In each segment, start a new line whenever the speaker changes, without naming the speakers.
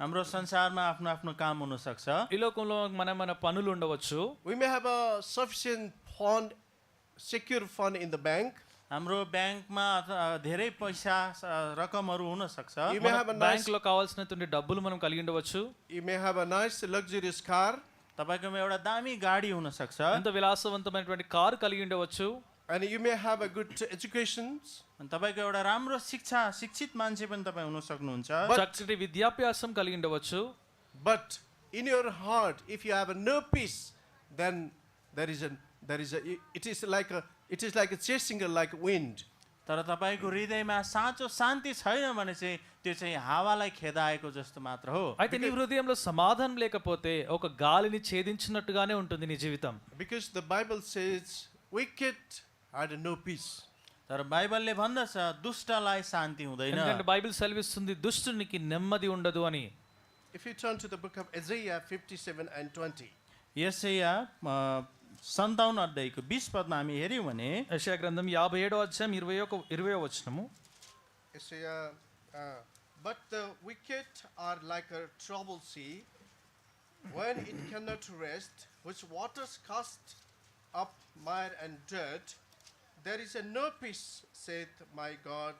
हाम्रो संसारमा आफ्नो आफ्नो काम हुनसक्छ
ఈ లోకంలో మన మన పనులు ఉండవచ్చు
We may have a sufficient fund, secure fund in the bank.
हाम्रो ब्याङ्कमा अथवा धेरै पैसा स- रकमहरू हुनसक्छ
You may have a nice,
bank లో కావాల్సినటువంటి డబ్బులు మనం కలిగి ఉండవచ్చు
you may have a nice luxurious car,
तपाईँकोमा एउटा दामी गाडी हुनसक्छ
ఎంత విలాసవంతమైనటువంటి కారు కలిగి ఉండవచ్చు
and you may have a good education.
अनि तपाईँको एउटा राम्रो शिक्षा शिक्षित मान्छे पनि तपाईँ हुन सक्नुहुन्छ
చక్కటి విద్యాభ్యాసం కలిగి ఉండవచ్చు
But in your heart, if you have no peace, then there is a there is a it is like a it is like a chasing like wind.
तर तपाईँको हृदयमा साँचो शान्ति छैन भने चाहिँ त्यो चाहिँ हावालाई खेदाएको जस्तो मात्र हो
అయితే నీ హృదయంలో సమాధానం లేకపోతే ఒక గాలిని ఛేదించినట్టుగానే ఉంటుంది నీ జీవితం
Because the Bible says, wicked had no peace.
तर बाइबलले भन्दछ दुष्टलाई शान्ति हुँदैन
ఎందుకంటే బైబిల్ సెలవిస్తుంది దుష్టునికి నెమ్మది ఉండదు అని
If you turn to the book of Isaiah 57 and 20,
यसैया सन्ताउन्न अध्यायको बिस पदमा हामी हेऱ्यौँ भने
యశయా గ్రంథం యాభై ఏడో అధ్యాయం ఇరవై ఒక ఇరవై వచనము
Isaiah, uh, but the wicked are like a troubled sea, when it cannot rest, whose waters cast up mire and dirt. There is a no peace, saith my God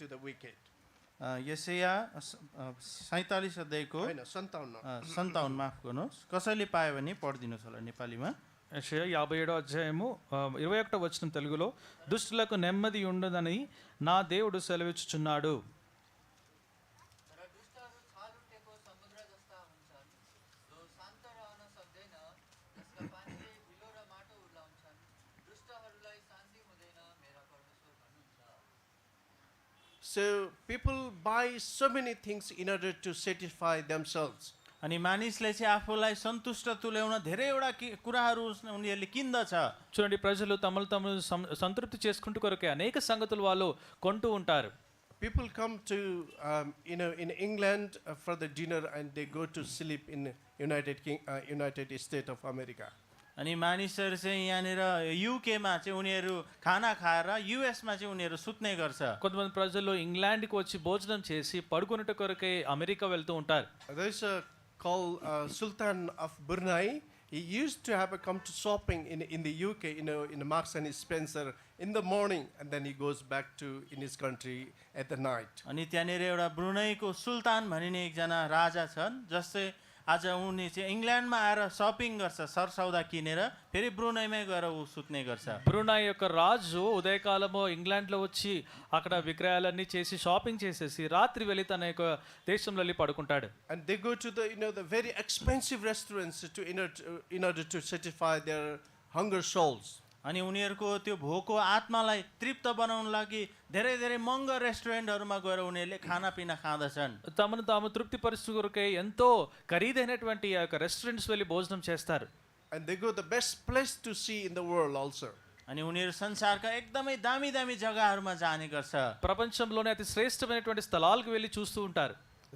to the wicked.
अ, यसैया स- अ, सैँतालिस अध्यायको
होइन सन्ताउन्न
अ, सन्ताउन्न माफ गर्नुहोस् कसैले पायो भने पढिदिनुहोस् होला नेपालीमा
యెషయా యాభై ఏడో అధ్యాయము ఆ, ఇరవై ఒకటో వచనం తెలుగులో దుష్టులకు నెమ్మది ఉండదని నా దేవుడు సెలవిచ్చుచున్నాడు
तर दुष्टहरू छल उठेको समुद्र जस्ता हुन्छन् जो शान्त रहन सक्दैन जसका पानीले हिलो र माटो उर्लाउँछन् दुष्टहरूलाई शान्ति हुँदैन मेरा परमेश्वर भन्नुहुन्छ
So people buy so many things in order to satisfy themselves.
अनि मानिसले चाहिँ आफूलाई सन्तुष्ट तुल्याउन धेरैवटा कि कुराहरू उस- उनीहरूले किन्दछ
చూడండి ప్రజలు తమలు తమను సం- సంతృప్తి చేసుకుంటూ కొరకే అనేక సంగతులు వాళ్ళు కొంటూ ఉంటారు
People come to, um, you know, in England uh, for the dinner and they go to sleep in United King, uh, United States of America.
अनि मानिसहरू चाहिँ यहाँनिर युकेमा चाहिँ उनीहरू खाना खाएर युएसमा चाहिँ उनीहरू सुत्ने गर्छ
కొంతమంది ప్రజలు ఇంగ్లాండ్కి వచ్చి భోజనం చేసి పడుకునేట కొరకే అమెరికా వెళ్తూ ఉంటారు
Uh, There's a call uh, Sultan of Brunei. He used to have a come to shopping in, in the UK, you know, in Marks and Spencer in the morning, and then he goes back to in his country at the night.
अनि त्यहाँनिर एउटा ब्रुनैको सुल्तान भनिने एकजना राजा छन् जसले आज उनी चाहिँ इङ्ल्यान्डमा आएर सपिङ गर्छ सरसौदा किनेर फेरि ब्रुनैमै गएर ऊ सुत्ने गर्छ
బ్రునాయ్ యొక్క రాజు ఉదయకాలము ఇంగ్లాండ్లో వచ్చి అక్కడ విక్రయాలన్నీ చేసి షాపింగ్ చేసేసి రాత్రి వెళ్ళి తన యొక్క దేశంలో వెళ్ళి పడుకుంటాడు
and they go to the you know the very expensive restaurants to in order to, in order to satisfy their hunger souls
अनि उनीहरूको त्यो भोको आत्मालाई तृप्त बनाउन लागि धेरै धेरै महँगो रेस्टुरेन्टहरूमा गएर उनीहरूले खानापिना खाँदछन्
తమను తాము తృప్తిపరుచు కొరకే ఎంతో ఖరీదైనటువంటి ఆ యొక్క రెస్టారెంట్స్ వెళ్ళి భోజనం చేస్తారు
and they go the best place to see in the world also
अनि उनीहरू संसारका एकदमै दामी दामी जग्गाहरूमा जाने गर्छ
ప్రపంచంలోనే అతి శ్రేష్టమైనటువంటి స్థలాలకు వెళ్ళి చూస్తూ ఉంటారు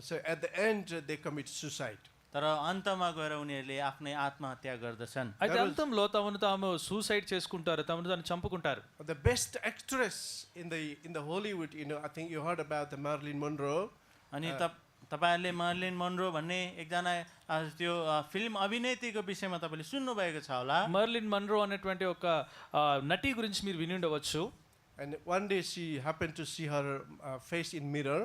so at the end uh, they commit suicide
तर अन्तमा गएर उनीहरूले आफ्नै ఆత్మహత్या गर्दछन्
అయితే అంతంలో తమను తాము సూసైడ్ చేసుకుంటారు తమను తాను చంపుకుంటారు
the best actress in the in the hollywood you know i think you heard about the marilyn monroe
अनि त तपाईँहरूले मर्लिन मनरो भन्ने एकजना अ, त्यो अ, फिल्म अभिनेत्रीको विषयमा तपाईँले सुन्नुभएको छ होला
మర్లిన్ మన్రో అనేటువంటి ఒక ఆ, నటి గురించి మీరు విని ఉండవచ్చు
and one day she happened to see her uh, face in mirror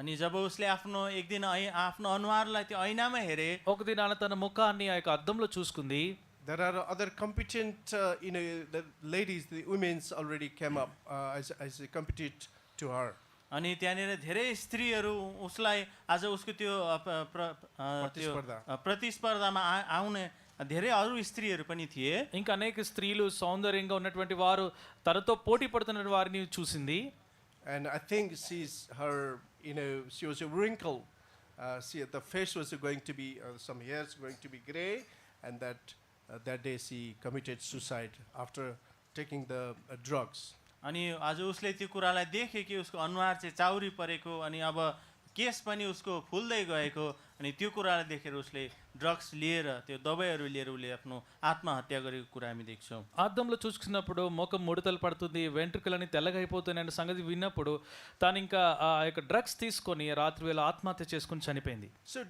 अनि जब उसले आफ्नो एक दिन ऐ आफ्नो अनुहारलाई त्यो ऐनामा हेरे
ఒక దినాన తన ముఖాన్ని ఆ యొక్క అద్దంలో చూసుకుంది
there are other competent, uh, you know, the ladies, the women's already came up uh, as, as a competent to her.
अनि त्यहाँनिर धेरै स्त्रीहरू उसलाई आज उसको त्यो अ, प- प्र- अ, त्यो,
प्रतिस्पर्धा।
अ, प्रतिस्पर्धामा आ- आउने धेरै अरू స్త్రీहरू पनि थिए
ఇంకా అనేక స్త్రీలు సౌందర్యంగా ఉన్నటువంటి వారు తనతో పోటీ పడుతున్న వారిని చూసింది
And I think she's her, you know, she was a wrinkle. Uh, she, the face was going to be, uh, some hairs going to be gray. And that, uh, that day she committed suicide after taking the uh, drugs.
अनि आज उसले त्यो कुरालाई देखे कि उसको अनुहार चाहिँ चाउरी परेको अनि अब केस पनि उसको फुल्दै गएको अनि त्यो कुरालाई देखेर उसले ड्रग्स लिएर त्यो दबाईहरू लिएर उसले आफ्नो आत्महत्या गरेको कुरा हामी देख्छौँ
అద్దంలో చూసుకున్నప్పుడు ముఖం ముడతలు పడుతుంది వెంట్రుకలని తెల్లగైపోతున్నాయన్న సంగతి విన్నప్పుడు తాను ఇంకా ఆ యొక్క డ్రగ్స్ తీసుకొని రాత్రి వేళ ఆత్మహత్య చేసుకుని చనిపోయింది
So